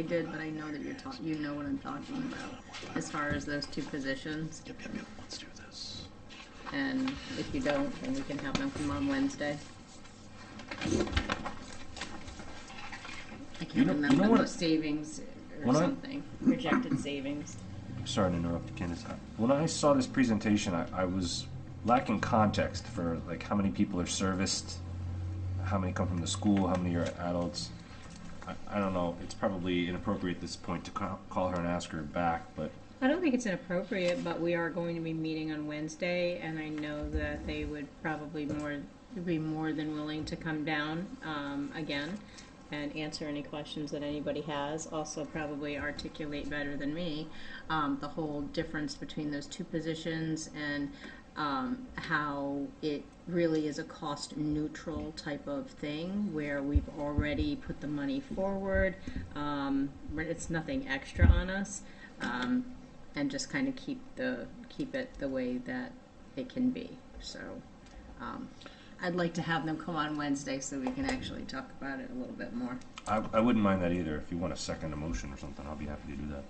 I did, but I know that you're talking. You know what I'm talking about as far as those two positions. Yep, yep, yep, let's do this. And if you don't, then we can have them come on Wednesday. I can't You know- you know remember what- the savings or when I- something. Projected savings. I'm sorry to interrupt, Candace. I- When I saw this presentation, I, I was lacking context for like how many people are serviced, how many come from the school, how many are adults. I, I don't know. It's probably inappropriate at this point to ca- call her and ask her back, but I don't think it's inappropriate, but we are going to be meeting on Wednesday, and I know that they would probably more be more than willing to come down um, again and answer any questions that anybody has. Also, probably articulate better than me um, the whole difference between those two positions and um, how it really is a cost neutral type of thing where we've already put the money forward. Um, where it's nothing extra on us. Um, and just kind of keep the keep it the way that it can be. So, um, I'd like to have them come on Wednesday so we can actually talk about it a little bit more. I, I wouldn't mind that either. If you want a second emotion or something, I'll be happy to do that.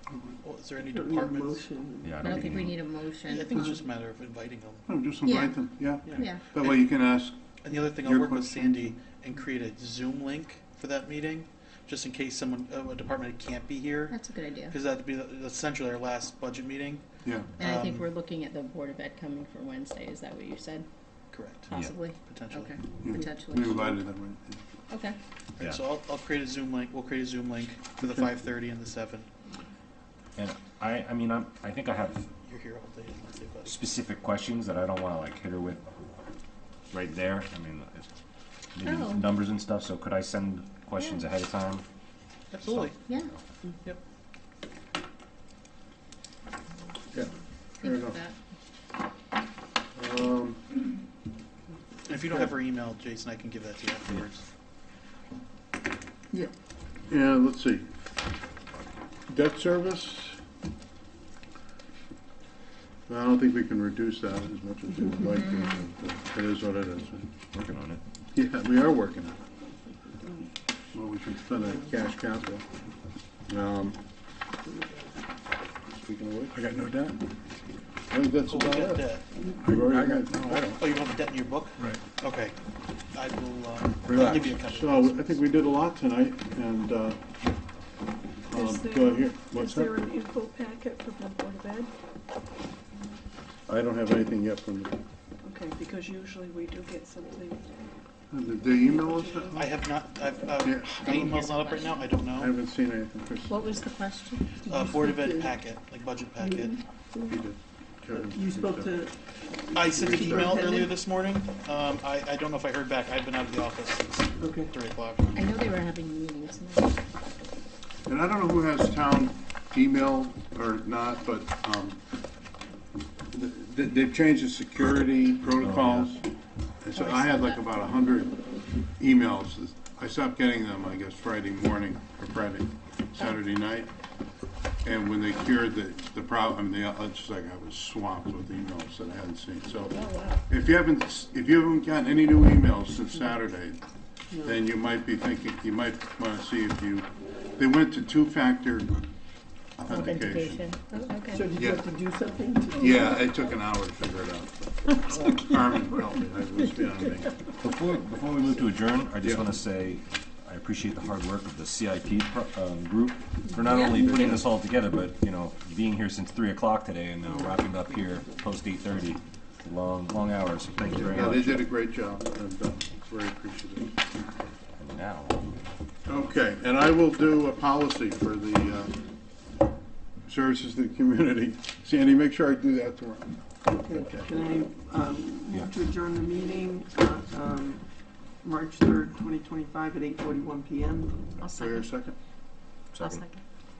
Well, is there any Don't need a departments? motion. Yeah, I don't think we any- need a I motion. think it's on- just a matter of inviting them. No, just Yeah. invite them, yeah. yeah. That way you can ask, And the other thing, I'll Your work with question. Sandy and create a Zoom link for that meeting, just in case someone, uh, a department head can't be here, That's a good idea. because that'd be the- essentially our last budget meeting. yeah. And I think um, we're looking at the Board of Ed coming for Wednesday. Is that what you said? Correct, Possibly. potentially. Okay. yeah. Potentially. We invited them, right? Okay. And Yeah. So I'll, I'll create a Zoom link, we'll create a Zoom link for the Okay. five thirty and the seven. And I, I mean, I'm, I think I have You're here all day on Wednesday, but specific questions that I don't want to like hit her with right there. I mean, it's maybe Oh. numbers and stuff. So could I send questions Yeah. ahead of time? absolutely. Yeah. Yep. Yeah, fair Think of enough. that. Um, And if you don't have her email, Jason, I can give that to you afterwards. yeah, yeah, let's see. Debt service? I don't think we can reduce that as much as we would like to, but it is what it is. Working on it. Yeah, we are working on it. Well, we should spend that cash capital. Um, Speaking of which. I got no debt. I think that's So we'll about get it. that. We've already got- no, I don't. Oh, you don't have a debt in your book? Right. Okay. I will, um, I'll give you a Relax. couple. So I think we did a lot tonight, and, uh, um, Is there- go here, what's Is there up? an info packet from the Board of Ed? I don't have anything yet from, Okay, because usually we do get something. did they email us? that? I have not, I've, uh, Yeah. my email's not up right now, I don't I know. haven't seen anything, Chris. What was the question? Uh, Board of Ed packet, like budget packet. He did. Karen, You spoke to, I sent an You're email starting. earlier this morning, um, I, I don't know if I heard back, I've been out of the office since okay, three o'clock. I know they were having meetings. tonight. And I don't know who has town email or not, but, um, th- th- they've changed the security protocols. And so I had like about a hundred emails. I stopped getting them, I guess, Friday morning or Friday, Saturday night. And when they cured the, the problem, they, it's just like I was swamped with emails that I hadn't seen. So if you haven't, s- if you haven't gotten any new emails since Saturday, then you might be thinking, you might want to see if you, they went to two-factor Authentication. authentication. Oh, okay. so did you Yeah. have to do something to? Yeah, it took an hour to figure it out. Carmen helped me, I was beyond me. Before, before we move to adjourn, I just Yeah. want to say I appreciate the hard work of the CIP pro- um, group for not only putting this all together, but, you know, being here since three o'clock today and now wrapping up here post eight thirty. Long, long hours. So thank you very Yeah, they much. did a great job, and uh, it's very appreciative. And now, Okay, and I will do a policy for the uh, services to the community. Sandy, make sure I do that tomorrow. Okay, Can I um, Yeah. move to adjourn the meeting, uh, um, March 3rd, 2025 at 8:41 PM? I'll Wait a second. second. I'll second. second.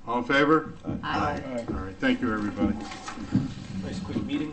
All in favor? Aye. All right, thank you, everybody. Nice quick meeting.